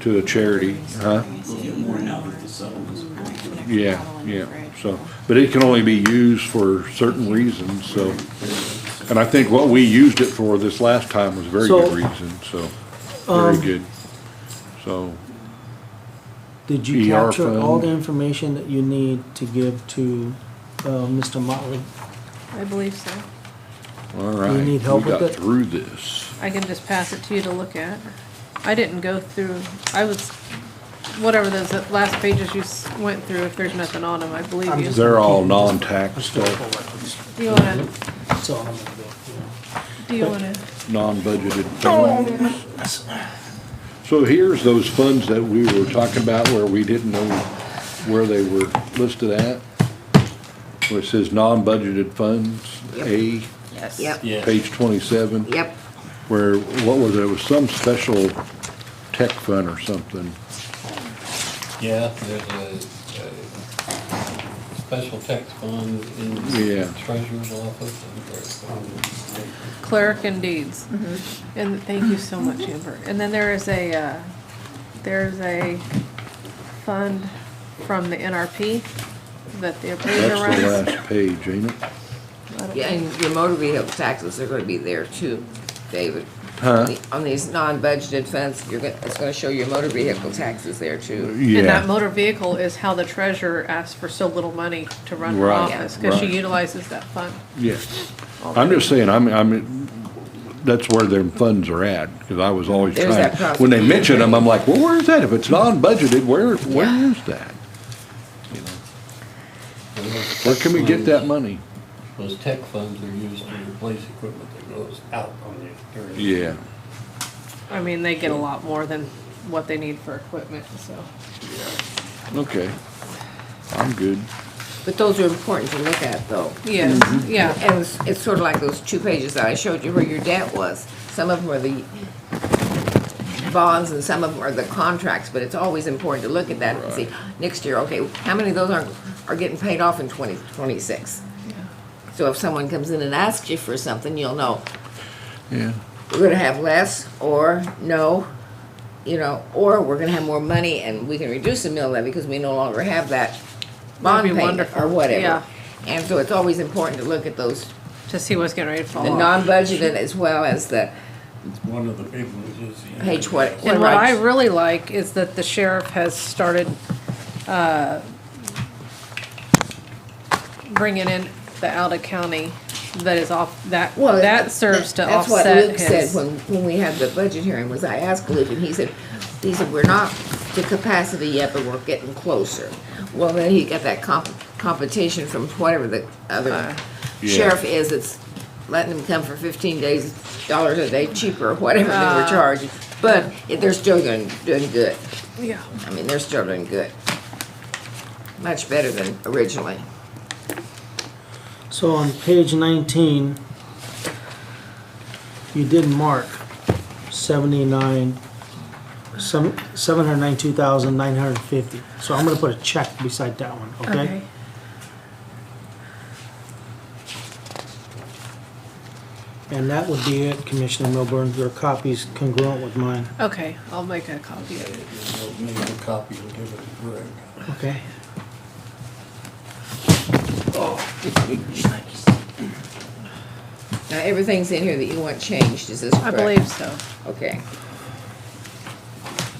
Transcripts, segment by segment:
to a charity, huh? We'll get more out of the settlements. Yeah, yeah, so, but it can only be used for certain reasons, so. And I think what we used it for this last time was a very good So, um, reason, so, very good. So, Did you ER capture all fund. the information that you need to give to, uh, Mr. Motley? I believe so. all right. need help We with got it? through this. I can just pass it to you to look at. I didn't go through, I was, whatever those last pages you s- went through, if there's nothing on them, I believe you. They're all non-tax stuff, Do you wanna, That's all I'm gonna do, you know. do you wanna, non-budgeted things. So here's those funds that we were talking about where we didn't know where they were listed at. Where it says non-budgeted funds, A, Yes. Yep, Yeah. page twenty-seven. yep. where, what was it, it was some special tech fund or something. Yeah, there's a, a special tax fund in Yeah. the treasurer's office. and clerk and deeds. And thank you so much, Amber. And then there is a, uh, there's a fund from the NRP that the appraiser That's the runs. last page, ain't it? I don't- Yeah, and your motor vehicle taxes are gonna be there too, David. Huh? On these non-budgeted funds, you're gonna, it's gonna show your motor vehicle taxes there too. And that Yeah, motor vehicle is how the treasurer asks for so little money to run her Right, office, because she right. utilizes that fund. yeah. I'm just saying, I'm, I'm, that's where their funds are at, because I was always There's trying. that cost. When they mention them, I'm like, well, where's that? If it's Mm-hmm. non-budgeted, where, where is that? there's- Where can we get that money? Those tech funds are used to replace equipment that goes out on the. during- Yeah, I mean, they get a lot more than what they need for equipment, so. okay. I'm good. But those are important to look at though. Yes, Mm-hmm. yeah, And it's, it's sort of like those two pages that I showed you where your debt was. Some of them are the bonds and some of them are the contracts, but it's always important to look at that and see, next year, okay, how many of those are, are getting paid off in twenty twenty-six? So if someone comes in and asks you for something, you'll know, Yeah, we're gonna have less, or no, you know, or we're gonna have more money and we can reduce the mill levy because we no longer have that bond be payment or wonderful, yeah. whatever. And so it's always important to look at those, to see what's getting ready to the fall off. non-budgeted as well as the One of the big ones is. the- page what. And what what do I really like is that the sheriff has started, uh, bringing in the out of county that is off, that, Well, that serves to that's what offset Luke said his. When, when we had the budget hearing, was I asked Luke, and he said, he said, we're not to capacity yet, but we're getting closer. Well, then he got that comp, competition from whatever the Uh, other Yeah. sheriff is, that's letting them come for fifteen days, dollars a day cheaper, or whatever they Uh. were charging. But it- they're still doing, doing good, Yeah, I mean, they're still doing good. Much better than originally. So on page nineteen, you did mark seventy-nine, some, seven hundred ninety-two thousand nine hundred fifty. So I'm gonna put a check beside that one, okay. okay? And that would be it, Commissioner Milburn, your copy's congruent with mine, Okay, I'll make a copy of it. We'll Make a copy and give it to Greg. okay? Now, everything's in here that you want changed, is this I correct? believe so. Okay.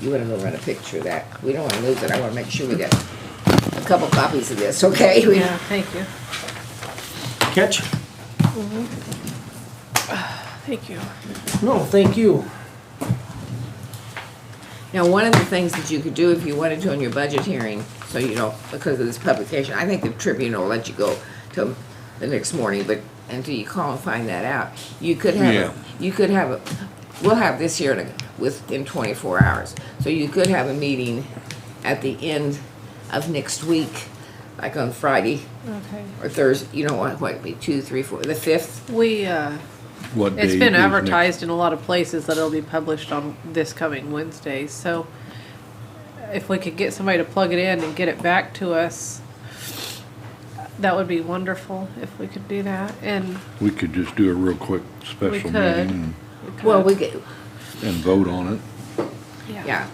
You wanna go run a picture of that? We don't wanna lose it, I wanna make sure we get a couple copies of this, okay? We- Yeah, thank you. Catch? Thank you. No, thank you. Now, one of the things that you could do if you wanted to on your budget hearing, so you know, because of this publication, I think the Tribune will let you go till the next morning, but until you call and find that out, you could Yeah. have, a- you could have, a. we'll have this here in, a- within twenty-four hours. So you could have a meeting at the end of next week, like on Friday, Okay. or Thursday, you know what, what, it'd be two, three, four, the fifth? We, uh, what it's day is been next- advertised in a lot of places that it'll be published on this coming Wednesday, so if we could get somebody to plug it in and get it back to us, that would be wonderful if we could do that, and We could just do a real quick we special meeting could. and- could. Well, we could, and vote on it. yeah,